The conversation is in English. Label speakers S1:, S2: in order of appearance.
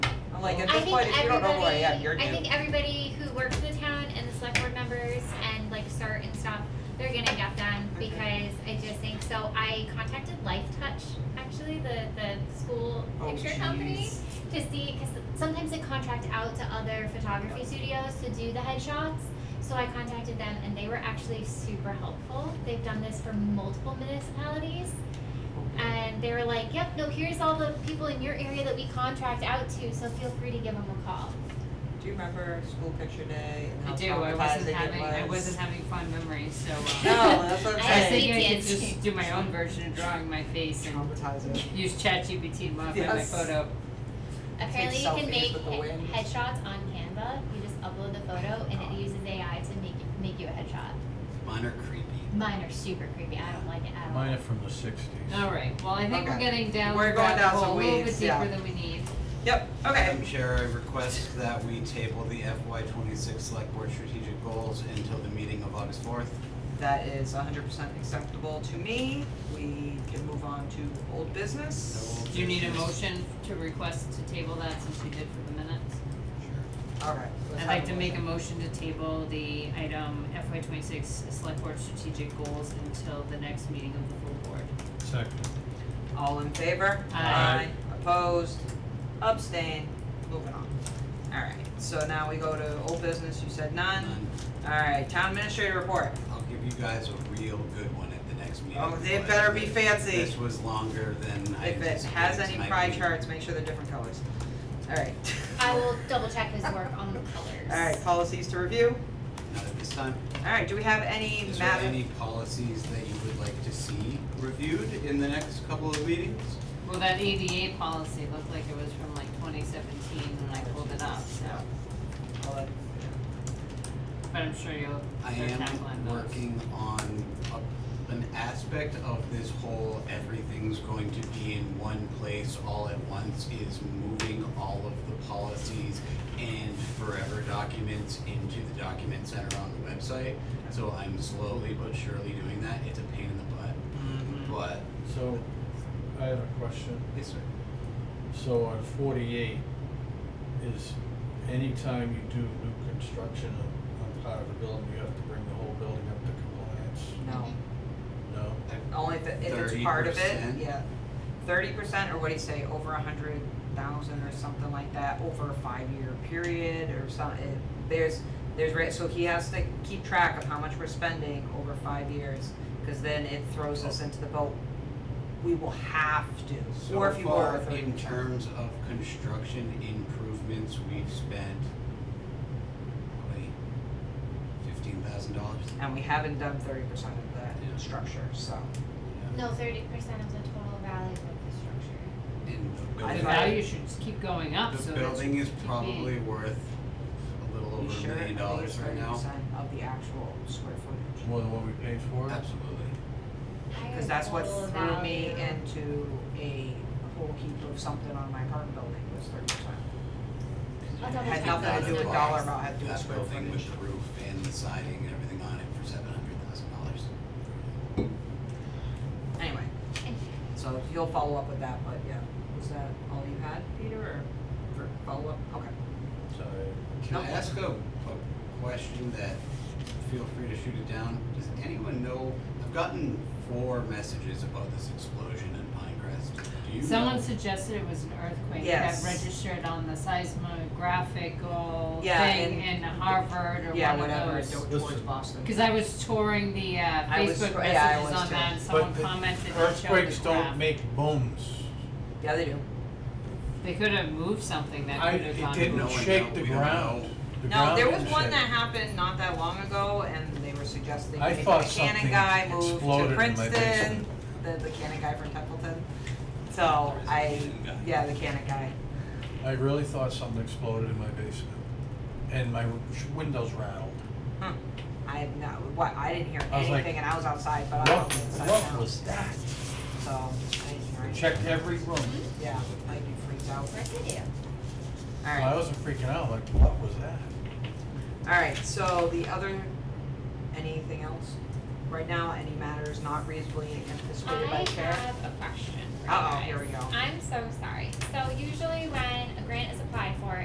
S1: like at
S2: I
S1: this
S2: think
S1: point, if you don't know who I
S2: everybody-
S1: am, you're
S2: I
S1: new.
S2: think everybody who works for the town and the select board members and like start and stop, they're gonna get done
S1: Okay.
S2: because I just think, so I contacted Life Touch, actually, the, the school
S1: Oh,
S2: picture company
S1: jeez.
S2: to see, cause sometimes they contract out to other photography studios to do the headshots. So I contacted them and they were actually super helpful. They've done this for multiple municipalities. And they were like, yep, no, here's all the people in your area that we contract out to, so feel free to give them a call.
S1: Do you remember school picture day and how
S3: I do, I wasn't
S1: traumatizing it
S3: having, I
S1: was?
S3: wasn't having fond memories, so,
S1: No,
S3: uh,
S1: Oh, that's what I'm
S2: I
S3: I was
S1: saying.
S3: thinking I could
S2: Yes, we
S3: just do my own version of drawing my face and
S1: Traumatizing.
S3: use ChatGPT to modify my
S1: Yes.
S3: photo.
S2: Apparently, you
S1: selfies
S2: can make
S1: with the
S2: he-
S1: wind.
S2: headshots on Canva. You just upload the photo, and it uses AI to make you, make you a headshot.
S4: Mine are creepy.
S2: Mine are super creepy. I don't like it at all.
S5: Mine are from the sixties.
S3: Alright, well, I think we're
S1: Okay.
S3: getting down
S1: We're
S3: the
S1: going
S3: rabbit
S1: down some
S3: hole a little bit
S1: weeds,
S3: deeper
S1: yeah.
S3: than we need.
S1: Yep, okay.
S4: Madam Chair, I request that we table the FY twenty-six Select Board Strategic Goals until the meeting of August fourth.
S1: That is hundred percent acceptable to me. We can move on to old business.
S3: Do you need a motion to request to table that since we did for the minutes?
S1: All right. let's have
S3: I'd like to
S1: a
S3: make a
S1: motion.
S3: motion to table the item FY twenty-six Select Board Strategic Goals until the next meeting of the full board.
S5: Second.
S1: All in favor?
S3: Aye.
S1: Opposed? Abstain? Moving on. All right, so now we go to old business. You said none.
S4: None.
S1: All right, town administrator report.
S4: I'll give you guys a real good one at the next meeting.
S1: Oh, they
S4: but
S1: better be
S4: this-
S1: fancy.
S4: This was longer than I
S1: If it
S4: anticipated.
S1: has
S4: so
S1: any
S4: might
S1: pie
S4: be-
S1: charts, make sure they're different colors. All right.
S2: I will double check his work on the colors.
S1: All right, policies to review.
S4: Not at this time.
S1: All right, do we have any
S4: Is there
S1: matter?
S4: any policies that you would like to see reviewed in the next couple of meetings?
S3: Well, that ADA policy looked like it was from like twenty seventeen when I pulled it up, so,
S1: Hold on.
S3: but I'm sure you'll,
S4: I
S3: they're
S4: am
S3: tackling those.
S4: working on a, an aspect of this whole everything's going to be in one place all at once is moving all of the policies and forever documents into the document center on the website. So I'm slowly but surely doing that. It's a pain in the butt,
S3: Mhm.
S4: but
S5: So, I have a question.
S4: yes, sir.
S5: So on forty-eight, is anytime you do new construction on, on part of a building, you have to bring the whole building up to compliance?
S1: No,
S5: No?
S1: only if, it- if it's part of it,
S4: 30%?
S1: yeah. Thirty percent, or what do you say, over a hundred thousand or something like that, over a five-year period or something. There's, there's, ra- so he has to keep track of how much we're spending over five years, cause then it throws
S4: Oh.
S1: us into the boat. We will have to, or if
S4: So
S1: you
S4: far,
S1: were thirty
S4: in
S1: percent.
S4: terms of construction improvements, we've spent probably fifteen thousand dollars.
S1: And we haven't done thirty percent of
S4: Yeah.
S1: the structure, so.
S2: No, thirty percent of the total value of the structure.
S4: And the
S1: I thought-
S3: The
S4: building,
S3: value should just keep going up, so
S4: the
S3: that should
S4: building is
S3: keep being-
S4: probably worth a little
S1: You
S4: over
S1: sure?
S4: a million dollars right now.
S1: I think it's thirty percent of the actual square footage.
S5: More than what we paid for it?
S4: Absolutely.
S1: Cause that's what
S2: Total
S1: threw me
S2: value.
S1: into a whole heap of something on my apartment building was thirty percent.
S2: I'll double
S1: Had
S2: check
S1: nothing
S2: that.
S1: to do with
S2: Okay.
S1: dollar amount, had to do with
S4: That
S1: square
S4: building
S1: footage.
S4: with the roof and the siding and everything on it for seven hundred thousand dollars.
S1: Anyway, so you'll follow up with that, but yeah, was that all you had, Peter, or for follow up? Okay.
S5: Sorry.
S4: Can I
S1: No.
S4: ask a, a question that, feel free to shoot it down, does anyone know, I've gotten four messages about this explosion in Pinecrest, do you know?
S3: Someone suggested it was an earthquake that
S1: Yes.
S3: registered on the seismographical
S1: Yeah,
S3: thing in Harvard or
S1: Yeah,
S3: one of those.
S1: whatever, do- towards
S5: Listen.
S1: Boston.
S3: Cause I was touring the uh
S1: I was-
S3: Facebook
S1: yeah, I
S3: messages
S1: was
S3: on
S1: too.
S3: that and someone
S5: But the
S3: commented and showed the
S5: Earthquakes don't
S3: graph.
S5: make bones.
S1: Yeah, they do.
S3: They could have moved something that
S5: I,
S3: could have
S5: it
S3: gone.
S5: didn't
S4: No one
S5: shake
S4: know.
S5: the
S4: We don't
S5: ground.
S4: know.
S5: The
S1: No,
S5: ground
S1: there was
S5: didn't
S1: one
S5: shake.
S1: that happened not that long ago, and they were suggesting
S5: I
S1: that the
S5: thought
S1: Cannon
S5: something
S1: guy moved to
S5: exploded in my
S1: Princeton,
S5: basement.
S1: the, the Cannon guy from Templeton. So
S4: There is
S1: I,
S4: a Cannon guy.
S1: yeah, the Cannon guy.
S5: I really thought something exploded in my basement, and my sh- windows rattled.
S1: Huh. Hmm. I have no, what, I didn't hear
S5: I was like,
S1: anything, and I was outside, but I
S5: What,
S1: don't know inside
S5: what
S1: now.
S5: was that? Hmm?
S1: So, I didn't hear anything.
S5: Checked every room.
S1: Yeah, I'd be freaked out.
S5: I
S1: Alright,
S5: wasn't freaking out, like, what was that?
S1: alright, so the other, anything else? Right now, any matters not reasonably anticipated by
S2: I
S1: the chair?
S2: have a question for you
S1: Uh-oh,
S2: guys.
S1: here we go.
S2: I'm so sorry. So usually when a grant is applied